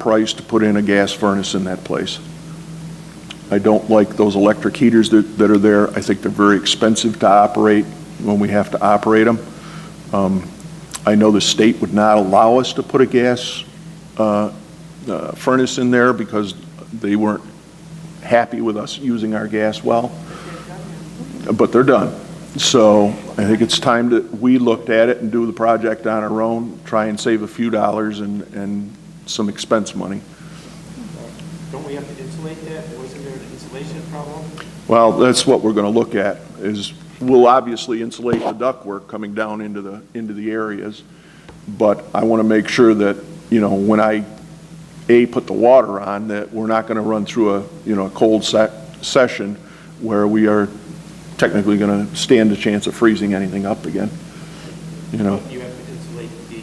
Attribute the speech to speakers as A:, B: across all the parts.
A: price to put in a gas furnace in that place. I don't like those electric heaters that, that are there. I think they're very expensive to operate when we have to operate them. Um, I know the state would not allow us to put a gas uh, uh, furnace in there because they weren't happy with us using our gas well. But they're done. So I think it's time that we looked at it and do the project on our own, try and save a few dollars and, and some expense money.
B: Don't we have to insulate that? Wasn't there an insulation problem?
A: Well, that's what we're going to look at, is we'll obviously insulate the ductwork coming down into the, into the areas, but I want to make sure that, you know, when I, A, put the water on, that we're not going to run through a, you know, a cold se- session where we are technically going to stand a chance of freezing anything up again, you know?
B: You have to insulate the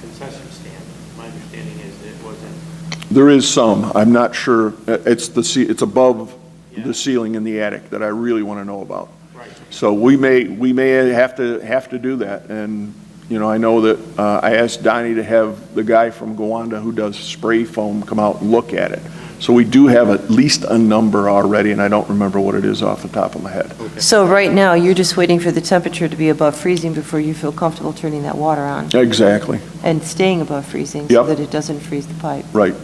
B: concession stand. My understanding is that it wasn't.
A: There is some, I'm not sure, Uh, it's the, ce- it's above
B: Yeah.
A: the ceiling in the attic that I really want to know about.
B: Right.
A: So we may, we may have to, have to do that, and, you know, I know that, uh, I asked Donnie to have the guy from Gowanda who does spray foam come out and look at it. So we do have at least a number already, and I don't remember what it is off the top of my head.
C: So right now, you're just waiting for the temperature to be above freezing before you feel comfortable turning that water on
A: Exactly,
C: and staying above freezing so
A: Yep.
C: that it doesn't freeze the pipe.
A: right.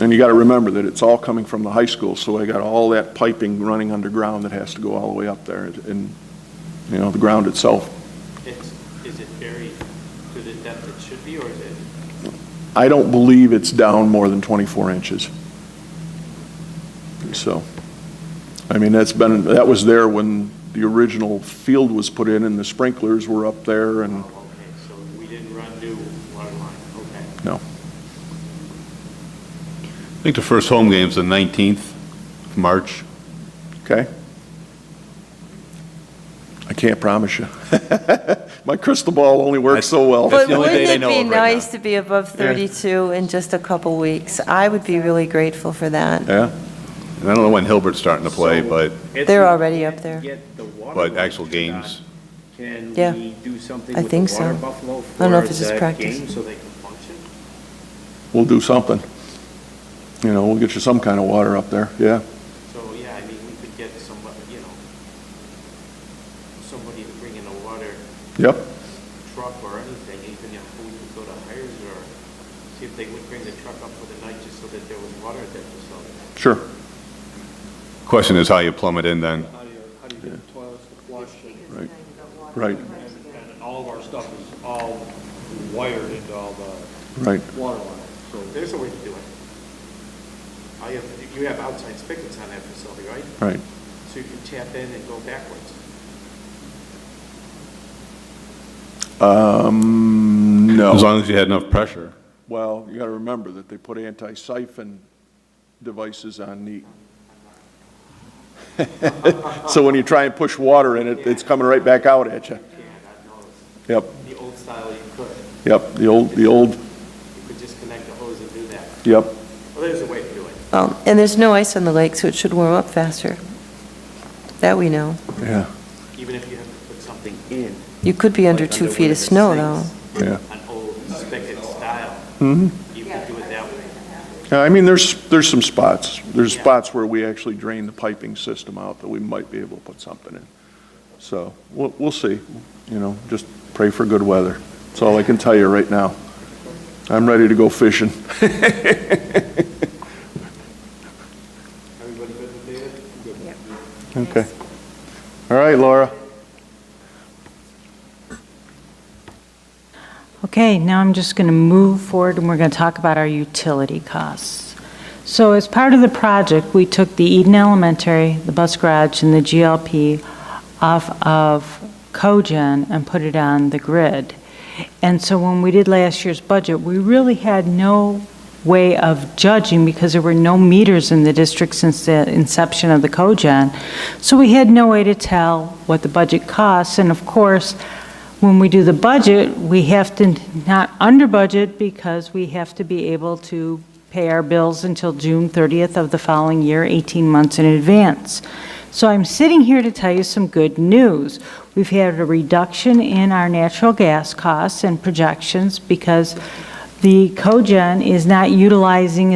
A: And you gotta remember that it's all coming from the high school, so I got all that piping running underground that has to go all the way up there, and, you know, the ground itself
B: It's, is it buried to the depth it should be, or is it?
A: I don't believe it's down more than 24 inches. So, I mean, that's been, that was there when the original field was put in and the sprinklers were up there and,
B: Oh, okay, so we didn't run new water line, okay.
A: no.
D: I think the first home game's the 19th of March.
A: Okay? I can't promise you. My crystal ball only works so well.
D: That's
C: But
D: the only
C: wouldn't
D: day they
C: it
D: know
C: be
D: of right now.
C: nice to be above 32 in just a couple weeks? I would be really grateful for that.
A: Yeah?
D: And I don't know when Hilbert's starting to play, but,
C: They're already up there.
E: Get the water
D: but
E: line
D: actual
E: shut
D: games.
E: on. Can
C: Yeah.
E: we do something
C: I
E: with the
C: think so.
E: water buffalo
C: I don't know
E: for
C: if it's just
E: the
C: practice.
E: game?
B: So they can function?
A: We'll do something. You know, we'll get you some kind of water up there, yeah.
B: So, yeah, I mean, we could get somebody, you know, somebody to bring in a water
A: Yep,
B: truck or anything, even if we could go to Hires or see if they would bring the truck up for the night just so that there was water at that facility.
A: sure.
D: Question is how you plumb it in then.
E: How do you, how do you get the toilets to flush?
A: Right, right,
E: And all of our stuff is all wired into all the
A: right.
E: water lines, so.
B: There's a way to do it. I have, you have outside spigots on that facility, right?
A: Right.
B: So you can tap in and go backwards.
A: Um, no.
D: As long as you had enough pressure.
A: Well, you got to remember that they put anti-siphon devices on neat. So when you try and push water in it, it's coming right back out at you.
B: Yeah, I know,
A: Yep,
B: the old style you could, you
A: yep, the old, the old,
B: could just connect the hose and do that.
A: yep.
B: Well, there's a way to do it.
C: Well, Um, And there's no ice on the lake, so it should warm up faster. That we know.
A: Yeah,
B: Even if you have to put something in.
C: You could be under
B: like
C: two
B: one
C: feet of
B: the
C: snow, though.
B: sinks,
A: yeah.
B: An old spigot style,
A: Mhm.
B: you could do it that way.
A: Yeah, I mean, there's, there's some spots. There's
B: Yeah.
A: spots where we actually drain the piping system out that we might be able to put something in. So we'll, we'll see, you know, just pray for good weather. That's all I can tell you right now. I'm ready to go fishing.
B: Everybody good with David?
A: Okay. All right, Laura.
F: Okay, now I'm just going to move forward, and we're going to talk about our utility costs. So as part of the project, we took the Eden Elementary, the bus garage, and the GLP off of cogen and put it on the grid. And so when we did last year's budget, we really had no way of judging because there were no meters in the district since the inception of the cogen. So we had no way to tell what the budget costs, and of course, when we do the budget, we have to not under budget because we have to be able to pay our bills until June 30th of the following year, 18 months in advance. So I'm sitting here to tell you some good news. We've had a reduction in our natural gas costs and projections because the cogen is not utilizing